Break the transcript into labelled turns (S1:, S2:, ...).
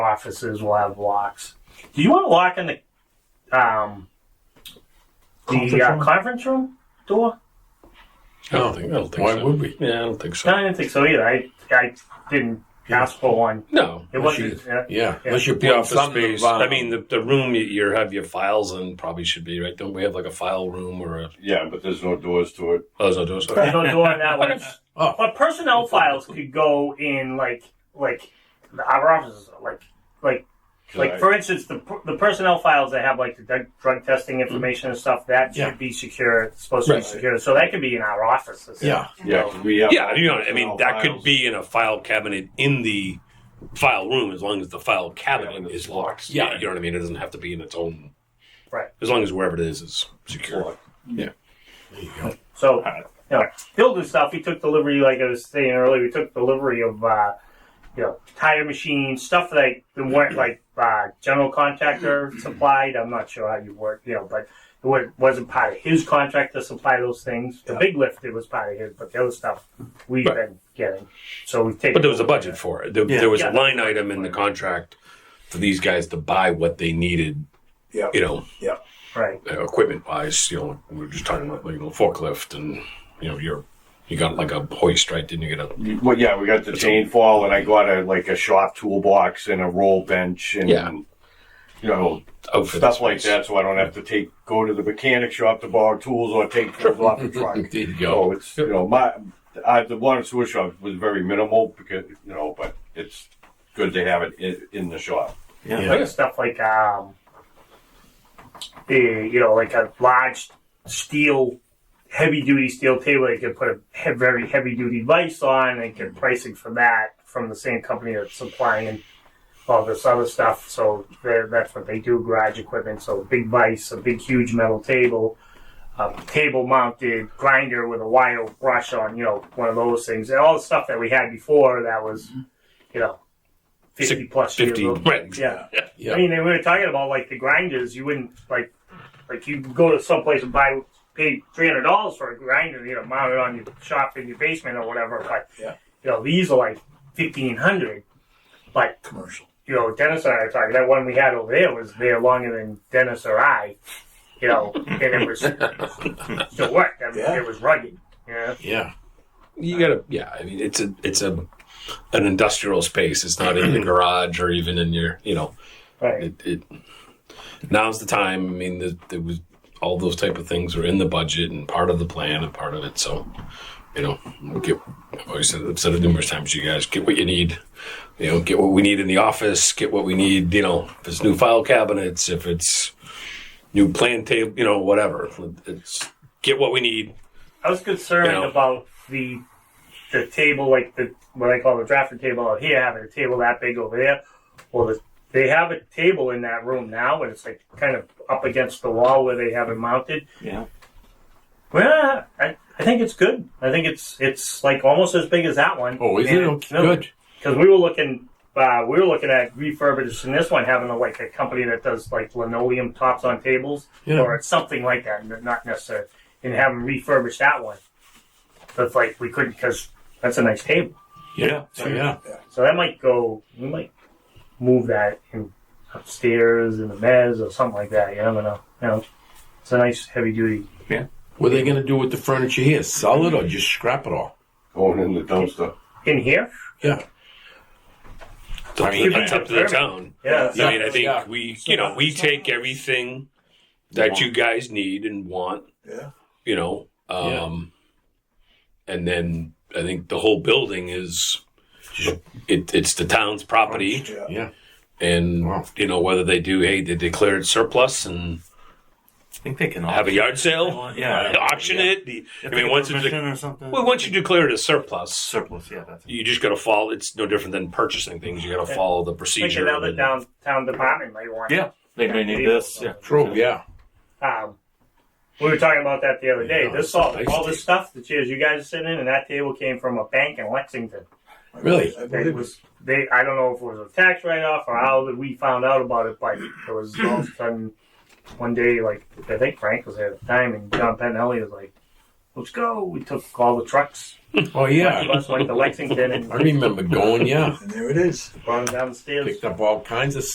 S1: offices will have locks. Do you want a lock in the um the
S2: Conference
S1: uh,
S2: room?
S1: conference room door?
S3: I don't think. I don't think.
S4: Why
S3: so.
S4: would we?
S3: Yeah, I don't think so.
S1: No, I didn't think so either. I I didn't ask for one.
S3: No,
S1: It
S4: Unless
S1: wasn't. uh,
S4: Yeah,
S1: Yeah.
S4: unless you put
S3: the office
S4: something
S3: space.
S4: about-
S3: I mean, the, the room you, you have your files in probably should be right. Don't we have like a file room or a?
S5: Yeah, but there's no doors to it.
S3: Oh, there's no doors.
S1: There's
S3: Okay.
S1: no door in that one.
S4: Oh.
S1: But personnel files could go in like like our offices, like like for instance, the the personnel files that have like the drug, drug testing information and stuff that
S4: Yeah.
S1: should be secure. It's supposed
S3: Right.
S1: to be secure, so that could be in our offices.
S4: Yeah,
S5: yeah, 'cause we have
S3: Yeah, you know, I mean,
S5: all
S3: that could
S5: files.
S3: be in a file cabinet in the file room as long as the file cabinet
S5: Cabinet
S3: is
S5: is
S3: locked.
S5: locked.
S3: Yeah, you know what I mean. It doesn't have to be in its own.
S1: Right.
S3: As long as wherever it is is secure.
S4: there you go.
S1: So, you know, building stuff. We took delivery, like I was saying earlier. We took delivery of, uh, you know, tire machines, stuff that I- that weren't like uh, general contractor supplied. I'm not sure how you work, you know, but it wa- wasn't part of his contract to supply those things. The big lift, it was part of his, but the other stuff we've
S3: Right.
S1: been getting. So we've taken.
S3: But there was a budget for it. There,
S4: Yeah.
S3: there was
S1: Yeah.
S3: a line item in the contract for these guys to buy what they needed.
S4: Yeah.
S3: You know,
S1: right.
S3: uh, equipment wise, you know, we were just talking about like a forklift and you know, you're you got like a hoist, right? Didn't you get a
S5: Well, yeah, we got the chain fall, and I got a like a shop toolbox and a roll bench, and
S3: Yeah.
S5: you know
S3: outfit?
S5: stuff like
S3: space?
S5: that, so I don't have to take go to the mechanic shop to borrow tools or take tools off the truck.
S3: There you
S5: So
S3: go.
S5: it's you know my I, the water and sewer shop was very minimal because you know, but it's good to have it in, in the shop.
S4: Yeah.
S1: like stuff like um, eh, you know, like a large steel, heavy duty steel table. They could put a he- very heavy duty vise on and get pricing for that from the same company that's supplying all this other stuff. So they're- that's what they do: garage equipment. So big vise, a big huge metal table. A table mounted grinder with a wire brush on, you know, one of those things. And all the stuff that we had before that was, you know, 50
S3: Six-
S1: plus years
S3: Fifty.
S1: old.
S3: Right.
S1: Yeah.
S4: Yeah.
S1: I mean, they we were talking about like the grinders. You wouldn't like, like you go to some place and buy, pay three hundred dollars for a grinder, you know, mount it on your shop in your basement or whatever. But
S4: Yeah.
S1: you know, these are like fifteen hundred. But
S4: Commercial.
S1: you know, Dennis and I are talking. That one we had over there was there longer than Dennis or I. You know, and it was so what? I mean,
S4: Yeah.
S1: It was rugged. Yeah.
S4: Yeah.
S3: You gotta yeah, I mean it's a it's a an industrial space. It's not in your garage or even in your you know
S1: Right.
S3: it, it now's the time. I mean the, there was all those type of things were in the budget and part of the plan and part of it. So you know, we get I've always said, I've said it numerous times, you guys get what you need. You know, get what we need in the office, get what we need, you know, if it's new file cabinets, if it's new plan table, you know, whatever. It's get what we need.
S1: I was concerned
S3: You know.
S1: about the the table, like the what I call the drafting table out here, having a table that big over there. Well, the, they have a table in that room now, and it's like kind of up against the wall where they have it mounted.
S2: Yeah.
S1: Well, I, I think it's good. I think it's it's like almost as big as that one.
S4: Oh, is it? Okay, Good.
S1: Because we were looking, uh, we were looking at refurbishing this one, having a, like a company that does like linoleum tops on tables
S4: Yeah.
S1: or something like that, n- not necessarily, and have them refurbish that one. But like we couldn't because that's a nice table.
S4: Yeah. So, yeah.
S1: So that might go. We might move that in upstairs in the mezz or something like that. You never know. You know, it's a nice heavy duty.
S4: What are they going to do with the furniture here? Sell it or just scrap it all?
S5: Going in the dumpster.
S1: In here,
S4: Yeah.
S3: I mean,
S1: Yeah.
S3: it's up to the town.
S1: yeah,
S3: I mean, I think
S4: Yeah.
S3: we, you know, we take everything that you guys need and want.
S6: Yeah.
S3: You know, um, and then I think the whole building is, it, it's the town's property,
S6: Yeah.
S4: Yeah.
S3: and
S4: Wow.
S3: you know whether they do, hey, they declare it surplus and
S2: I think they can
S3: have a yard sale,
S2: Yeah.
S3: auction it. The- I mean, once it's
S2: permission
S3: de-
S2: or something.
S3: well, once you declare it a surplus,
S2: surplus, yeah, that's
S3: you just got to follow. It's no different than purchasing things. You got to follow the
S1: like
S3: procedure.
S1: another
S3: and-
S1: downtown department might want.
S2: Yeah. They may need this. Yeah.
S4: True. Yeah.
S1: Um, we were talking about that the other day.
S4: Yeah,
S1: this
S4: it's a
S1: all,
S4: nice
S1: all this stuff, the chairs you guys are sitting in, and that table came from a bank in Lexington.
S4: Really?
S6: I
S1: It
S6: believe it.
S1: was they. I don't know if it was a tax write-off or how that we found out about it, but it was all of a sudden one day. Like I think Frank was there at the time, and John Penelli was like, let's go. We took all the trucks.
S4: Oh
S1: Yeah.
S4: yeah,
S1: Bus went to Lexington and
S4: I remember going. Yeah,
S6: And there it is.
S1: brought them down the stairs.
S4: picked up all kinds of